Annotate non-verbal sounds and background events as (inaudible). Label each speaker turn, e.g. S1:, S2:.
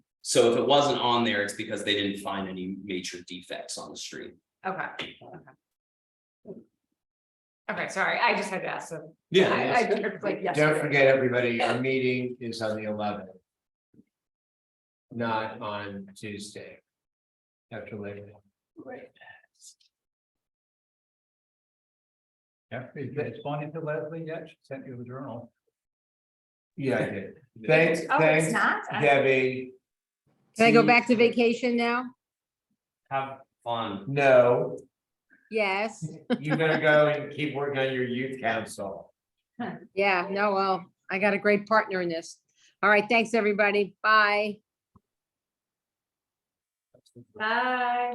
S1: So if it wasn't on there, it's because they didn't find any major defects on the street.
S2: Okay. okay. Okay, sorry, I just had to ask them. I, I was like, yes.
S3: Don't forget, everybody, our meeting is on the eleventh. Not on Tuesday. After Labor Day.
S4: Yeah, you responded to Leslie yet? She sent you the journal.
S3: Yeah,
S4: (laughs)
S3: I did. Thanks,
S2: Oh, it's
S3: thanks,
S2: not? I-
S3: Debbie.
S5: Can I go
S3: See-
S5: back to vacation now?
S1: Have fun.
S3: No,
S5: Yes,
S3: you're gonna go and keep working on your youth council.
S5: yeah, no, well, I got a great partner in this. All right, thanks, everybody. Bye.
S2: Bye.